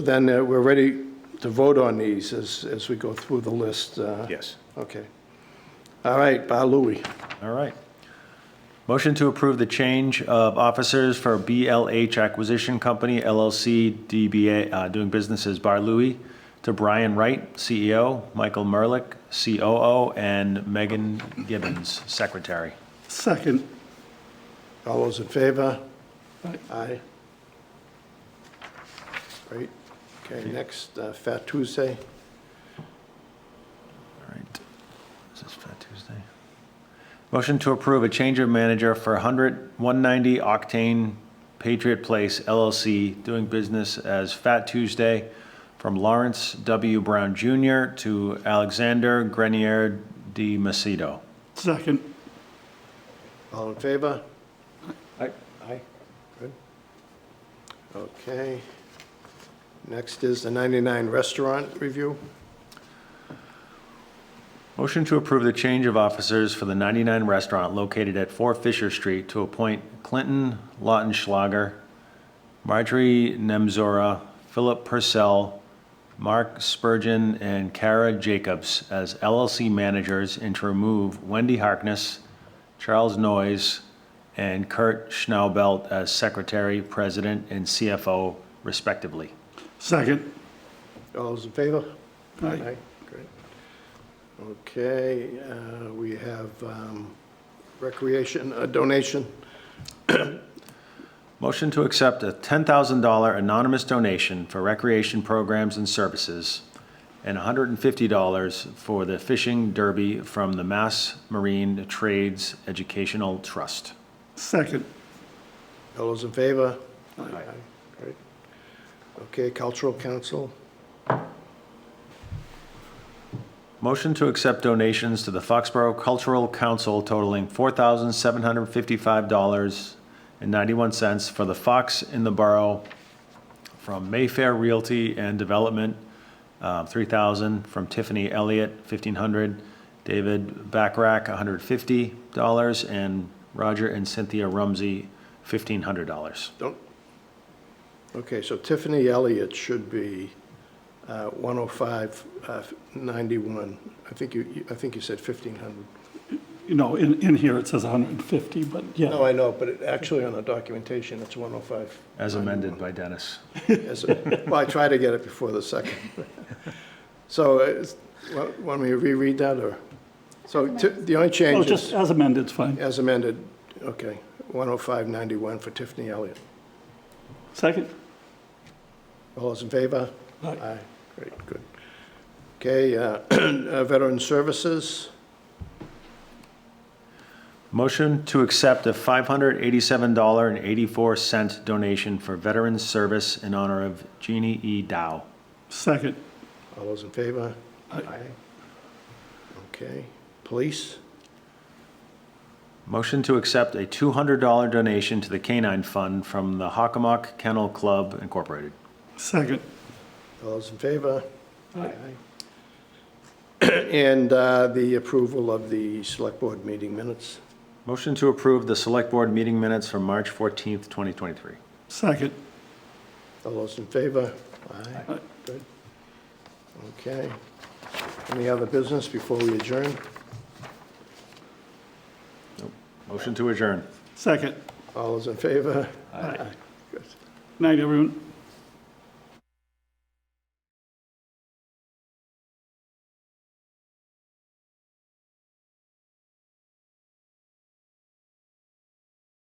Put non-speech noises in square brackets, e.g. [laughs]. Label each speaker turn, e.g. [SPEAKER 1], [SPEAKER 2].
[SPEAKER 1] Then uh, we're ready to vote on these as, as we go through the list. uh,
[SPEAKER 2] Yes.
[SPEAKER 1] Okay. All right, Bar Louie.
[SPEAKER 3] All right. Motion to approve the change of officers for BLH Acquisition Company LLC DBA, uh, doing business as Bar Louie, to Brian Wright, CEO, Michael Merlick, COO, and Megan Gibbons, Secretary.
[SPEAKER 1] Second. All those in favor? Aye. Great. Okay, next, uh, Fat Tuesday.
[SPEAKER 3] All right. This is Fat Tuesday. Motion to approve a change of manager for 100, 190 Octane Patriot Place LLC, doing business as Fat Tuesday, from Lawrence W. Brown Jr. to Alexander Grenier de Macedo.
[SPEAKER 4] Second.
[SPEAKER 1] All in favor?
[SPEAKER 3] Aye.
[SPEAKER 1] Aye. Good. Okay. Next is the 99 Restaurant Review.
[SPEAKER 3] Motion to approve the change of officers for the 99 Restaurant located at 4 Fisher Street to appoint Clinton Lautenschlager, Marjorie Nemzora, Philip Purcell, Mark Spurgeon, and Kara Jacobs as LLC managers and to remove Wendy Harkness, Charles Noyes, and Kurt Schnaubelt as secretary, president, and CFO respectively.
[SPEAKER 4] Second.
[SPEAKER 1] All those in favor?
[SPEAKER 4] Aye.
[SPEAKER 1] Great. Okay, uh, we have um, recreation, a donation.
[SPEAKER 3] Motion to accept a $10,000 anonymous donation for recreation programs and services and $150 for the fishing derby from the Mass Marine Trades Educational Trust.
[SPEAKER 4] Second.
[SPEAKER 1] All those in favor? Aye. Great. Okay, Cultural Council,
[SPEAKER 3] Motion to accept donations to the Foxborough Cultural Council totaling $4,755.91 for the Fox in the Borough from Mayfair Realty and Development, uh, $3,000, from Tiffany Elliott, $1,500, David Backrack, $150, and Roger and Cynthia Rumsey, $1,500.
[SPEAKER 1] don't, okay, so Tiffany Elliott should be uh, 10591. uh, I think you, you- I think you said 1,500.
[SPEAKER 4] You know, in, in here it says 150, but
[SPEAKER 1] No,
[SPEAKER 4] yeah.
[SPEAKER 1] I know, but it- actually on the documentation, it's 105.
[SPEAKER 3] As amended by Dennis.
[SPEAKER 1] Yes, sir. Well, I tried to get it before the second. [laughs] So, uh, is- wa- want me to reread that, or? So t- the only
[SPEAKER 4] No,
[SPEAKER 1] change
[SPEAKER 4] just uh,
[SPEAKER 1] is,
[SPEAKER 4] as amended, it's fine.
[SPEAKER 1] as amended, okay, 10591 for Tiffany Elliott.
[SPEAKER 4] Second.
[SPEAKER 1] All those in favor?
[SPEAKER 4] Aye.
[SPEAKER 1] Great, good. Okay, uh, [clears throat] uh, Veteran Services,
[SPEAKER 3] Motion to accept a $587.84 donation for Veterans Service in honor of Jeannie E. Dow.
[SPEAKER 4] Second.
[SPEAKER 1] all those in favor?
[SPEAKER 4] Aye.
[SPEAKER 1] Okay, Police,
[SPEAKER 3] Motion to accept a $200 donation to the Canine Fund from the Hockomock Kennel Club Incorporated.
[SPEAKER 4] Second.
[SPEAKER 1] all those in favor?
[SPEAKER 4] Aye.
[SPEAKER 1] Aye. And uh, the approval of the Select Board meeting minutes.
[SPEAKER 3] Motion to approve the Select Board meeting minutes from March 14th, 2023.
[SPEAKER 4] Second.
[SPEAKER 1] All those in favor?
[SPEAKER 4] Aye.
[SPEAKER 1] Good. Okay. Any other business before we adjourn?
[SPEAKER 3] Motion to adjourn.
[SPEAKER 4] Second.
[SPEAKER 1] All those in favor?
[SPEAKER 4] Aye. Night, everyone.